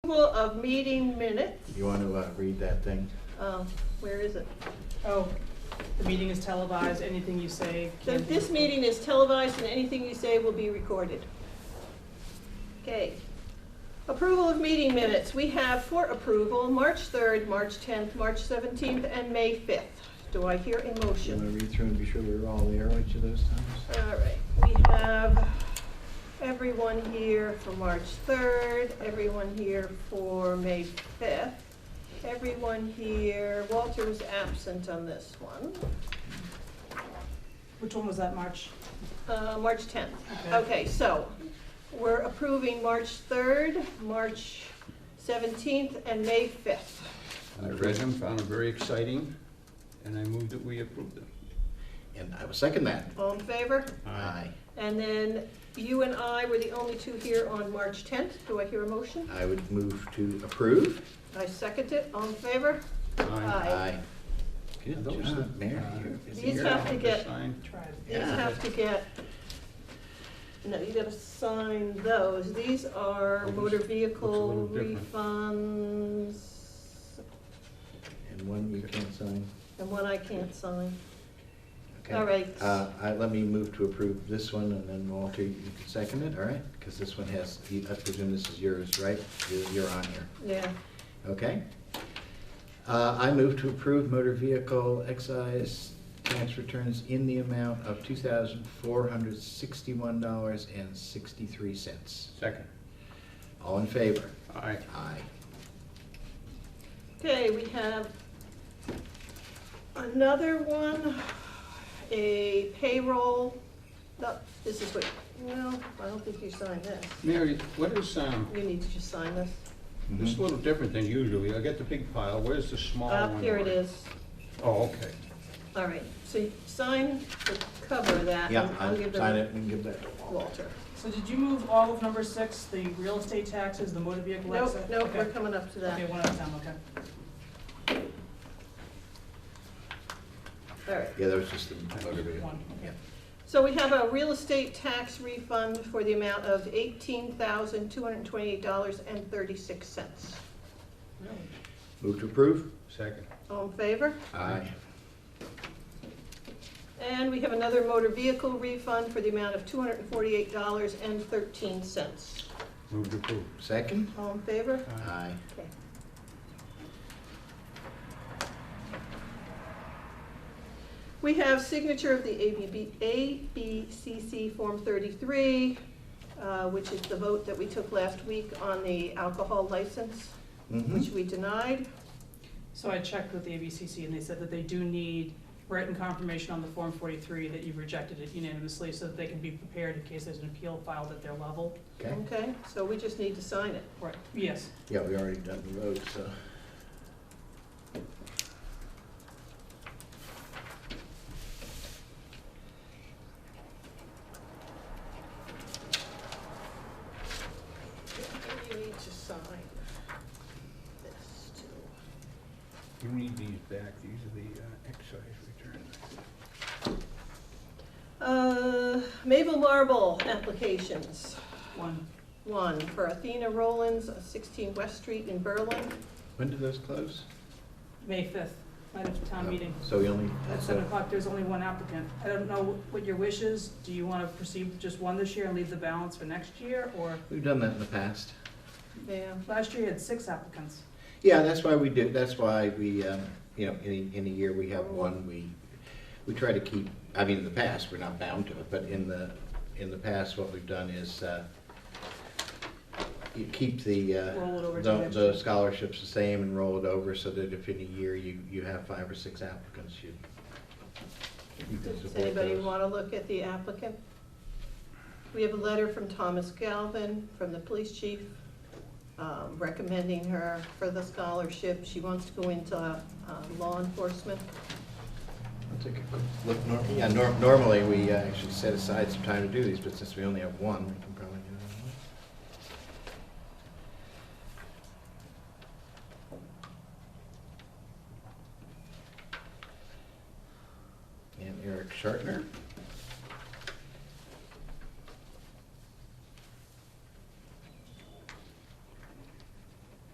Approval of meeting minutes. You want to uh, read that thing? Um, Where is it? Oh, the meeting is televised, anything you say. So can be This meeting is televised and anything you say will be recorded. Okay. Approval of meeting minutes. We have for approval, March 3rd, March 10th, March 17th, and May 5th. Do I hear a You want motion? to read through and be sure we were all there each of those times? All right, we have everyone here for March 3rd, everyone here for May 5th, everyone here, Walter was absent on this one, Which one was that, March? Uh, March 10th. Okay. Okay, so we're approving March 3rd, March 17th, and May 5th. I read them, found them very exciting, and I moved that we approved them. And I will second that. All in favor? Aye. And then you and I were the only two here on March 10th. Do I hear a motion? I would move to approve. I second it. All in favor? Aye. Good Those job, are- Mary. uh, You're- is These the have to airport get- sign? Tried. These have to get, no, you gotta sign those. These are Those motor looks a little vehicle different. refunds, And one you can't sign. and one I can't sign. Okay. All right. Uh, I, let me move to approve this one, and then Walter, you can second it, all right? Because this one has, I presume this is yours, right? You're, you're on here, Yeah, okay? Uh, I move to approve motor vehicle excise tax returns in the amount of two thousand four hundred sixty-one dollars and sixty-three cents. Second. All in favor? Aye. Aye. okay, we have another one, a payroll, no, this is what, no, I don't think you signed this. Mary, what is, um, You need to just sign this. this Mm-hmm. is a little different than usually. I get the big pile. Where's the small Up, one? here it is. Oh, okay. All right, so you sign the cover of that. Yeah, and I'll I'll give sign them- it and give that to Walter. Walter. So did you move all of number six, the real estate taxes, the motor vehicle Nope, excise? nope, Okay. we're coming up to Okay, that. one at a time, okay. All right. Yeah, that was just the motor vehicle. One, okay. Yeah. So we have a real estate tax refund for the amount of eighteen thousand, two hundred and twenty-eight dollars and thirty-six cents. Move to approve? Second. All in favor? Aye. And we have another motor vehicle refund for the amount of two hundred and forty-eight dollars and thirteen cents. Move to approve. Second? All in favor? Uh, Aye. Okay. We have signature of the ABB, ABCC Form 33, uh, which is the vote that we took last week on the alcohol license, which Mhm. we denied. So I checked with the ABCC and they said that they do need written confirmation on the Form 43 that you rejected it unanimously so that they can be prepared in case there's an appeal filed at their level. Okay. Okay, so we just need to sign it. Right. Yes. Yeah, we already done the vote, so. You need to sign this too. You need these back. These are the uh, excise returns. Uh, Mabel Marble applications. One. One for Athena Rollins, 16 West Street in Berlin. When do those close? May 5th, night of town meeting. Um, So we only, At seven so, o'clock, there's only one applicant. I don't know what your wish is. Do you want to proceed with just one this year and leave the balance for next year? Or, we've done that in the past. Yeah. last year you had six applicants. Yeah, that's why we do, that's why we, um, you know, in, a- in a year, we have one, we, we try to keep, I mean, in the past, we're not bound to it, but in the, in the past, what we've done is, uh, you keep the, uh, Roll it over to the- next The year. scholarships the same and roll it over so that if in a year you, you have five or six applicants, you. you can Does support anybody those. want to look at the applicant? We have a letter from Thomas Galvin, from the police chief, um, recommending her for the scholarship. She wants to go into uh, law enforcement. I'll take a quick look. Nor- Yeah, nor- normally, we uh, actually set aside some time to do these, but since we only have one, we can probably do that. one. And Eric Shartner.